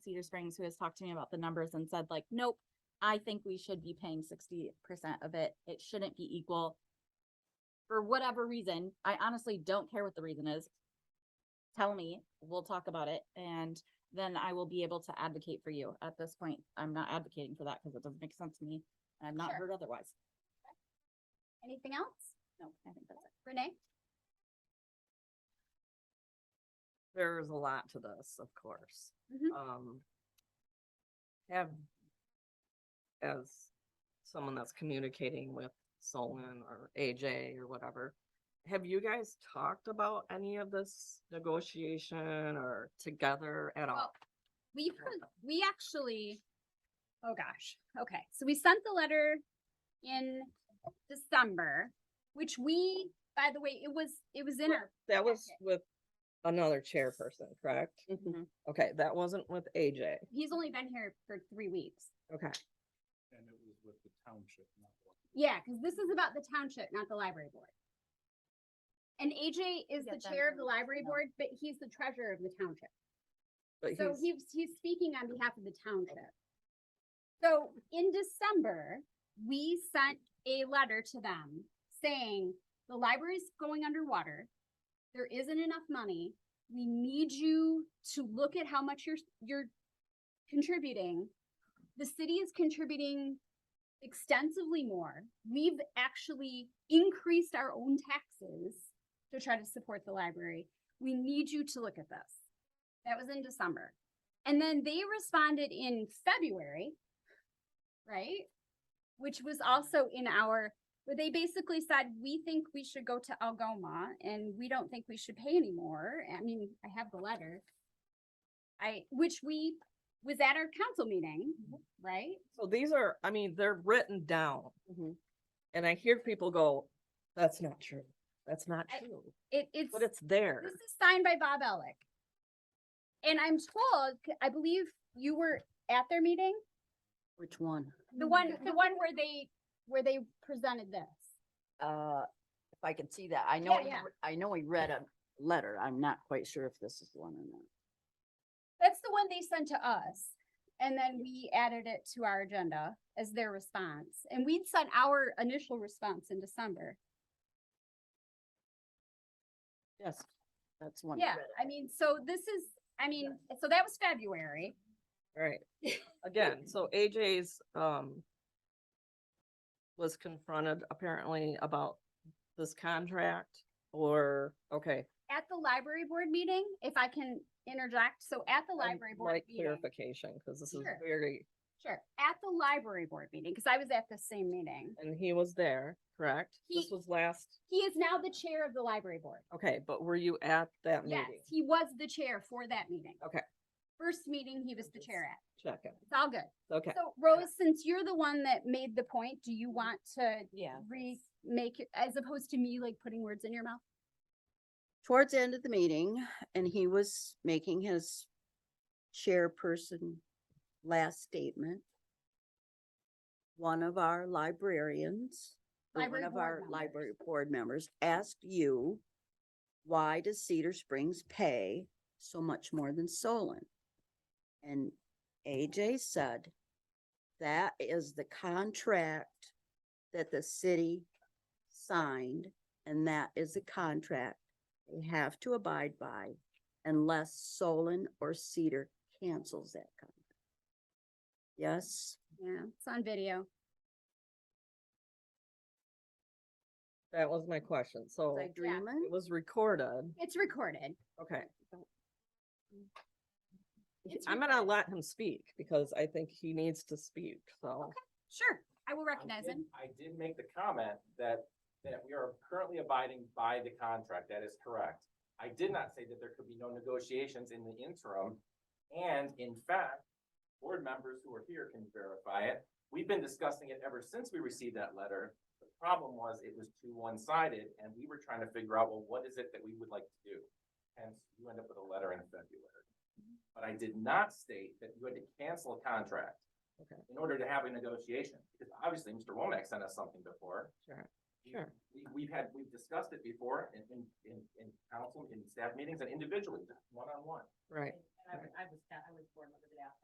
Cedar Springs who has talked to me about the numbers and said like, nope, I think we should be paying sixty percent of it. It shouldn't be equal. For whatever reason, I honestly don't care what the reason is. Tell me, we'll talk about it and then I will be able to advocate for you. At this point, I'm not advocating for that because it doesn't make sense to me. and I've not Sure. heard otherwise. Anything else? No, I think that's it. Renee? there's a lot to this, of course. Mhm. Um, have, as someone that's communicating with Solon or AJ or whatever, have you guys talked about any of this negotiation or together at all? Well, We, heard- we actually, oh gosh, okay, so we sent the letter in December, which we, by the way, it was, it was in our. That was with another chairperson, correct? Okay, that wasn't with AJ. He's only been here for three weeks. Okay, And it was with the township, not the. Yeah, because this is about the township, not the library board. And AJ is Get the them chair of to the let us library know. board, but he's the treasurer of the township. but So he's, he's, he's speaking on behalf of the township. So in December, we sent a letter to them saying, the library's going underwater. There isn't enough money. We need you to look at how much you're, you're contributing. The city is contributing extensively more. We've actually increased our own taxes to try to support the library. We need you to look at this. That was in December. And then they responded in February, right? Which was also in our, where they basically said, we think we should go to Algoma and we don't think we should pay anymore. I mean, I have the letter. I, which we was at our council meeting, right? so these are, I mean, they're written down. Mm-hmm. Mhm. And I hear people go, that's not true. That's not I- true. It, it's. But it's there. This is signed by Bob Elick. And I'm told, c- I believe you were at their meeting, Which one? the Mm-hmm. one, the one where they, where they presented this. uh, if I can see that, I know, Yeah, he yeah. re- I know he read a letter, I'm not quite sure if this is the one or not. That's the one they sent to us. And then we added it to our agenda as their response. And we'd sent our initial response in December. Yes, that's one. he Yeah, read. I mean, so this is, I mean, so that was February. Right. Again, so AJ's, um, was confronted apparently about this contract or, okay. At the library board meeting, if I can interject, so at the I'd library board like meeting. Clarification, because this is Sure. very, Sure, at the library board meeting, because I was at the same meeting. and he was there, correct? This He- was last, He is now the chair of the library board. okay, but were you at that Yes, meeting? he was the chair for that meeting. Okay. First meeting, he was the chair at. Check it. It's all good. Okay, So Rose, since you're the one that made the point, do you want to Yeah. remake it as opposed to me like putting words in your mouth? Towards the end of the meeting, and he was making his chairperson last statement. One of our librarians, or one Library of board our members. library board members asked you, why does Cedar Springs pay so much more than Solon? And AJ said, that is the contract that the city signed, and that is a contract we have to abide by unless Solon or Cedar cancels that contract. Yes, Yeah, it's on video. that was my question. So was I it dreaming? was recorded, It's recorded. okay. It's I'm gonna let him speak because I think he needs to speak, so. Sure, I will I recognize did- him. I did make the comment that, that we are currently abiding by the contract. That is correct. I did not say that there could be no negotiations in the interim. And in fact, board members who are here can verify it. We've been discussing it ever since we received that letter. The problem was it was too one-sided and we were trying to figure out, well, what is it that we would like to do? Hence, you end up with a letter in February. But I did not state that you had to cancel a contract in order to have a negotiation, because obviously Mr. Womack sent us something before. Sure. Sure. We, we've had, we've discussed it before in, in, in, in council, in staff meetings and individually, one-on-one. Right. And I was, I was, I was born with it after.